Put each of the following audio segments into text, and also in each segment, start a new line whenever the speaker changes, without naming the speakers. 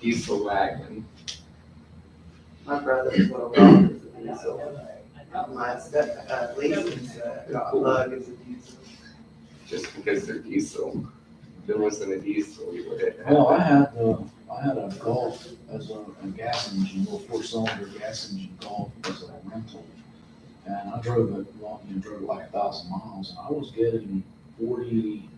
diesel wagon.
My brother's little dog is a diesel. My step, uh, Lisa's, uh, lug is a diesel.
just because they're diesel. If it wasn't a diesel, you would have.
Well, I had, uh, I had a Golf as a, a gas engine, little four-cylinder gas engine Golf as a rental. And I drove it, long you know, drove it like a thousand miles, and I was getting forty,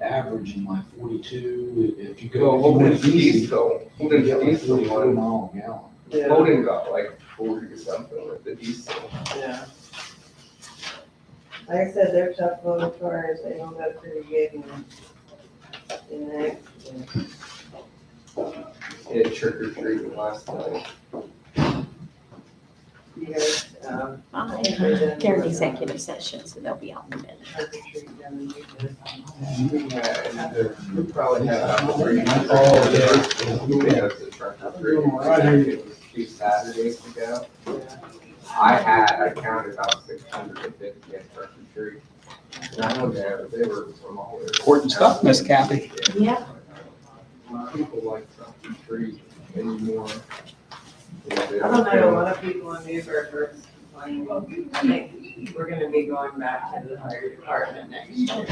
averaging like forty-two, if you go.
Well,
if you went
Holden's
easy,
diesel,
You could
Holden's
get like
diesel,
40
one-
mile a gallon.
Yeah,
Holden got like forty or something with the diesel.
yeah. Like I said, they're tough little cars, they don't go pretty good in, in uh, an accident.
It trick or treating last night.
You guys, um,
Fine. They're in executive session, so they'll be out in a minute.
uh, trick or treat them and do this.
Yeah, and We probably have about three.
Oh, yeah.
We had the trick or treating.
All right, here you
It was Two Saturdays ago.
Yeah.
I had, I counted about six hundred and fifty at trick or treat. And I know that they were from all over.
Important stuff, Miss Kathy.
Yeah.
People like trick or treat anymore.
I don't know, a lot of people in Newburgh are complaining, well, I think we're gonna be going back to the fire department next year.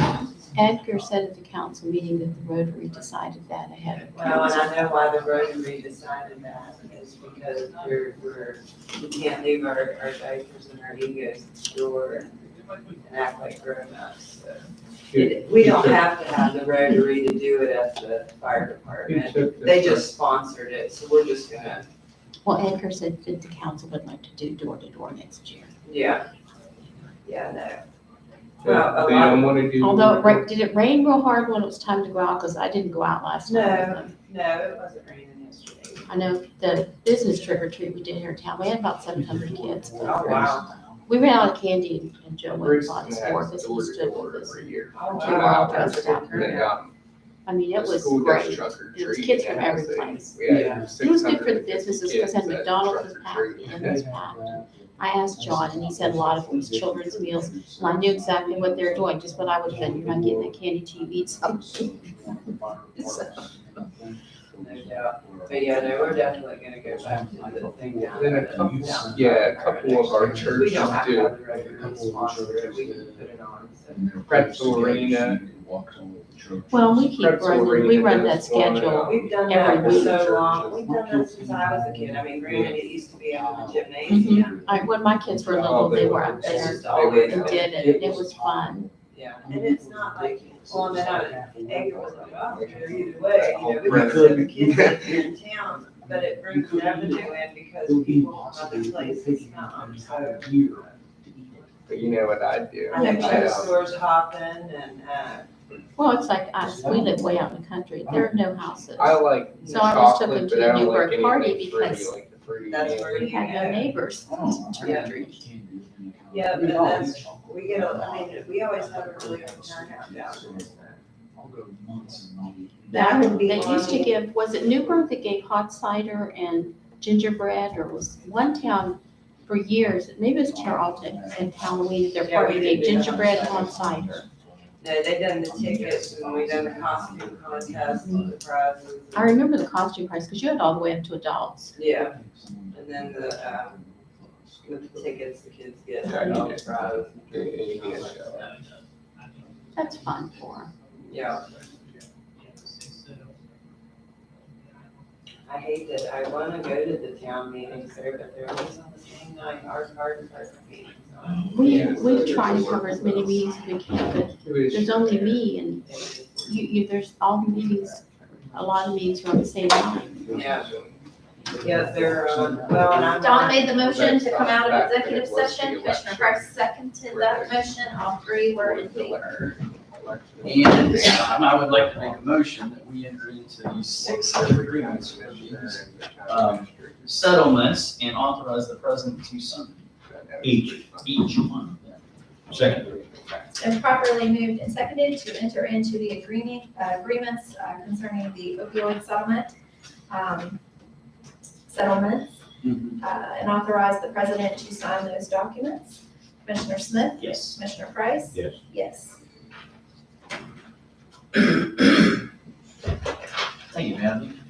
Edgar said at the council meeting that the Rotary decided that ahead of
Well, and
council.
I know why the Rotary decided that, is because we're, we're, we can't leave our, our diapers and our egos at the door and and act like grown-ups, so. It- We don't have to have the Rotary to do it at the fire department, they just sponsored it, so we're just gonna,
Well, Edgar said that the council would like to do door to door next year.
yeah. Yeah, no.
They they don't wanna do.
Although it ra- did it rain real hard when it was time to go out? Cause I didn't go out last night. with them.
No, it wasn't raining yesterday.
I know the business trick or treat we did here in town, we had about seven hundred kids.
Oh, wow.
We ran out of candy and Joe went and
Bruce
bought
has
his fourth as he
door to
stood
door
with us.
every year.
Oh,
Two
wow,
miles
that's
down.
good
They
turnout.
got
I mean, it
the
was
school does
great.
truck or
It was
treat,
kids from
and it
every
was a-
place.
We
Yeah.
had
It was good for the
650
businesses
kids
because had
at
McDonald's was
truck or
packed
treat.
and was packed. I asked John and he said a lot of these children's meals
and
Well, I knew exactly what they were doing, just what I would have done, you're not getting that candy till you eat
Um,
something.
No doubt. But yeah, no, we're Oh, definitely gonna go back to the thing down.
Then a couple, yeah, a couple of our
We
churches
don't have to
do.
have the record sponsor it, we can put it on, so.
Pretzel arena.
Well, we keep
Pretzel
running, we
arena
run that
does one,
schedule.
uh,
We've done that for
Every
so
week.
long, we've done that since I was a kid, I mean, granted, it used to be on the
Mhm.
gymnasium,
I, when my kids were
Oh,
little,
they
they were
were-
up
it's
there
just always,
and did it, and it was fun.
yeah, and it's not like on the night, egg was like, oh, there either way, you know,
Oh,
because
Brenda.
the kids are in town, but it brings revenue in because people from other places come, so.
But you know what I do?
I know
I,
show
um,
stores hopping and, uh,
Well, it's like us, we live way out in the country, there are no houses.
I like
So I always took
chocolate,
them to
but
a
I don't
Newburgh
like
party
anything fruity,
because
like the fruity
that's
man.
where
We had no neighbors.
Yeah, but then we get, a- I mean, we always have a really good turnout down there.
I'll go months and I'll be.
That would be
They used to
one.
give, was it Newburgh that gave hot cider and gingerbread, or was one town for years, maybe it was Charlton, and Halloween, their
Yeah, we
party gave
did do that.
gingerbread and hot cider.
No, they done the tickets and we done the costume contest and the prizes.
I remember the costume price, because you had all the way up to adults.
Yeah, and then the, um, with the tickets the kids get, and all the prizes.
Yeah, yeah, yeah, yeah.
That's fun for 'em.
Yeah, I hate that, I wanna go to the town meetings there, but they're always on the same night, our card is our meeting.
We,
Yeah,
we
so
try to
it's-
cover as many meetings as we can, but
It was-
there's only me, and you, you, there's all the meetings, a lot of meetings are on the same line.
Yeah. Yeah, they're, um, well, and I'm.
Don made the motion to come out of executive session, Commissioner Price seconded that motion, all three were in favor.
And at this time, I would like to make a motion that we enter into these six separate agreements with these Um, settlements and authorize the president to sign each, each one of them. Second.
Been properly moved and seconded to enter into the agreement, uh, agreements uh, concerning the opioid settlement, um, settlements, uh, and authorize the president to sign those documents. Commissioner Smith,
Yes.
Commissioner Price?
Yes.
Yes.
Thank you, Matthew.